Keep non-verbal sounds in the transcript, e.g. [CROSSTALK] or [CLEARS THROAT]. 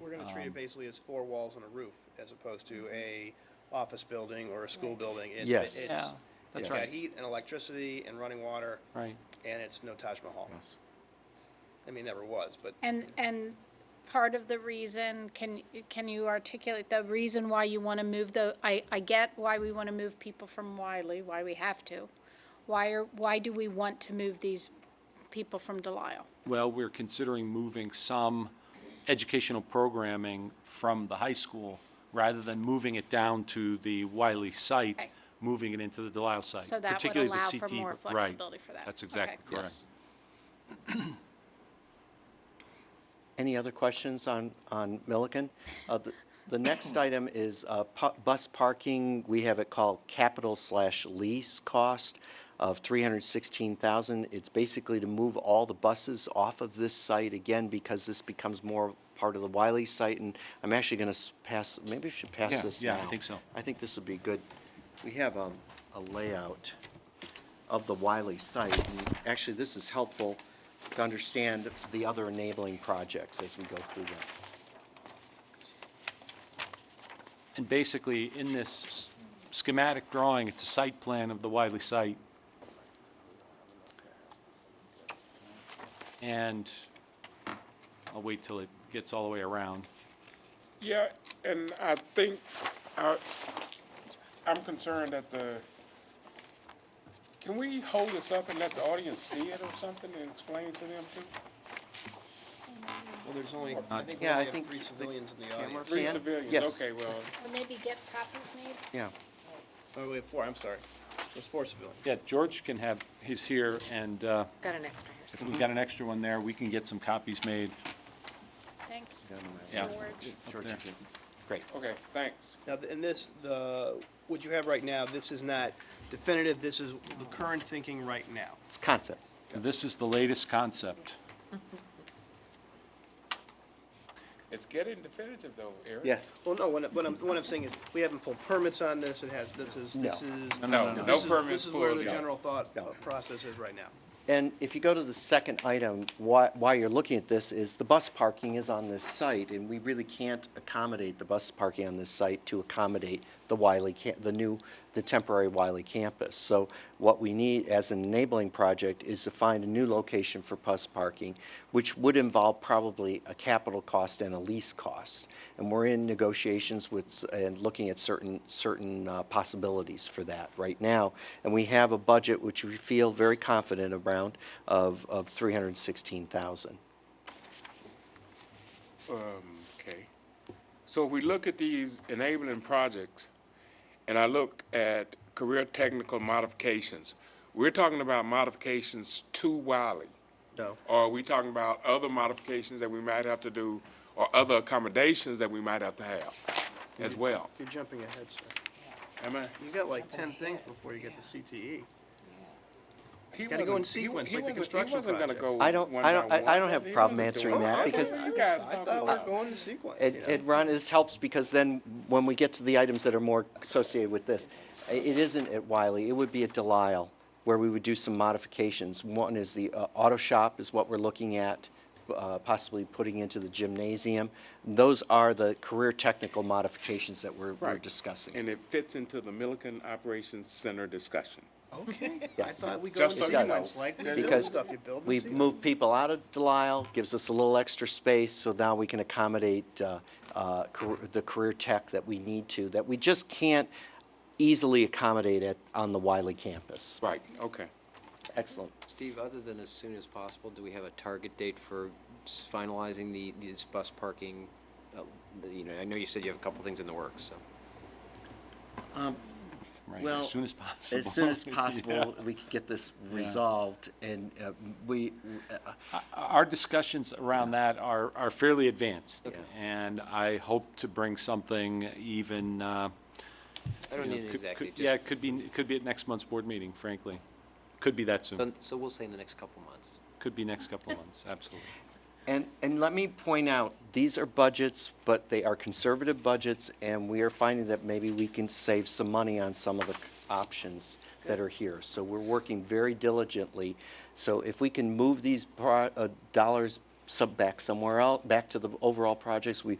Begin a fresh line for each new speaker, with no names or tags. Um,
treated basically as four walls and a roof, as opposed to a office building or a school building. It's-
Yes.
it's-
Yeah, that's
It's
right.
got heat and electricity and running water,
Right.
and it's no Taj Mahal.
Yes.
I mean, it never was, but
And, and part of the reason, can, can you articulate the reason why you want to move the, I, I get why we want to move people from Wiley, why we have to. Why are, why do we want to move these people from Delisle?
Well, we're considering moving some educational programming from the high school rather than moving it down to the Wiley site,
Okay.
moving it into the Delisle site.
So that would
particularly the
allow for
CT
more
right.
flexibility for that.
That's
Okay.
exactly correct.
Yes. [CLEARS THROAT] Any other questions on, on Milliken? Uh, the- The
[COUGHS]
next item is uh, pu- bus parking. We have it called capital slash lease cost of 316,000. It's basically to move all the buses off of this site again because this becomes more part of the Wiley site. And I'm actually going to pass, maybe we should pass
Yeah,
this
yeah, I
now.
think so.
I think this would be good. We have um, a layout of the Wiley site. and Actually, this is helpful to understand the other enabling projects as we go through them.
And basically, in this s- schematic drawing, it's a site plan of the Wiley site. And I'll wait till it gets all the way around.
Yeah, and I think, I, I'm concerned that the, can we hold this up and let the audience see it or something and explain it to them too?
well, there's only, I think we
Yeah, I
only have
think
three
the
civilians in the
camera-
audience.
Three
Can?
civilians,
Yes.
okay, well,
Or maybe get copies made?
Yeah,
Oh, we have four, I'm sorry. There's four civilians.
Yeah, George can have, he's here, and uh,
Got an extra here.
if we've got an extra one there, we can get some copies made.
Thanks,
Yeah.
George.
George,
there.
you can- great.
okay, thanks.
Now, th- in this, the, what you have right now, this is not definitive, this is the current thinking right now.
It's concept.
This is the latest concept.
It's getting definitive though, Eric.
Yes.
Well, no, what I- what I'm, what I'm saying is, we haven't pulled permits on this, it has, this is, this
No.
is.
no, no,
this
no
is-
permits
This is where
pulled,
the
no.
general thought
No.
uh, process is right now.
And if you go to the second item, why, why you're looking at this is the bus parking is on this site, and we really can't accommodate the bus parking on this site to accommodate the Wiley, ca- the new, the temporary Wiley campus. So what we need as an enabling project is to find a new location for bus parking, which would involve probably a capital cost and a lease cost. And we're in negotiations with, s- and looking at certain, certain uh, possibilities for that right now. And we have a budget which we feel very confident around of, of 316,000.
Okay. So if we look at these enabling projects, and I look at career technical modifications, we're talking about modifications to Wiley.
No.
Or are we talking about other modifications that we might have to do, or other accommodations that we might have to have as well?
You're jumping ahead, sir.
Am I?
You got like ten things before you get to E. CTE.
He
Gotta go in
wasn't- he-
sequence,
he
like the
wasn't-
construction
He wasn't
project.
gonna go
I don't-
one
I don't-
by
I- I don't
one.
have a
He
problem
wasn't
answering
doing-
that
I thought
because-
you guys
I
talking
thought
about-
we're going to sequence,
And,
you know?
and Ron, this helps because then when we get to the items that are more associated with this, i- it isn't at Wiley, it would be at Delisle where we would do some modifications. One is the uh, auto shop is what we're looking at, uh, possibly putting into the gymnasium. Those are the career technical modifications that we're, we're
Right.
discussing.
And it fits into the Milliken Operations Center discussion.
Okay, I
Yes.
thought we go in
Just so you
sequence,
know.
like we build
Because
stuff, you build in
We've
sequence.
moved people out of Delisle, gives us a little extra space, so now we can accommodate uh, uh, car- the career tech that we need to, that we just can't easily accommodate at, on the Wiley campus.
Right, okay.
Excellent.
Steve, other than as soon as possible, do we have a target date for s- finalizing the, these bus parking? uh, the- You know, I know you said you have a couple things in the works, so.
Right,
Well,
as soon as possible.
As soon as
[LAUGHS] Yeah.
possible, we could get this resolved, and uh, we, uh,
Our discussions around that are, are fairly advanced.
Okay.
And I hope to bring something even, uh,
I don't
you know,
need it
could-
exactly,
could- Yeah,
just,
it could be, it could be at next month's board meeting, frankly. Could be that soon.
so we'll say in the next couple months.
Could be next couple of months, absolutely.
And, and let me point out, these are budgets, but they are conservative budgets, and we are finding that maybe we can save some money on some of the c- options that are here. So we're working very diligently. So if we can move these pro, uh, dollars sub back somewhere else, back to the overall projects, we,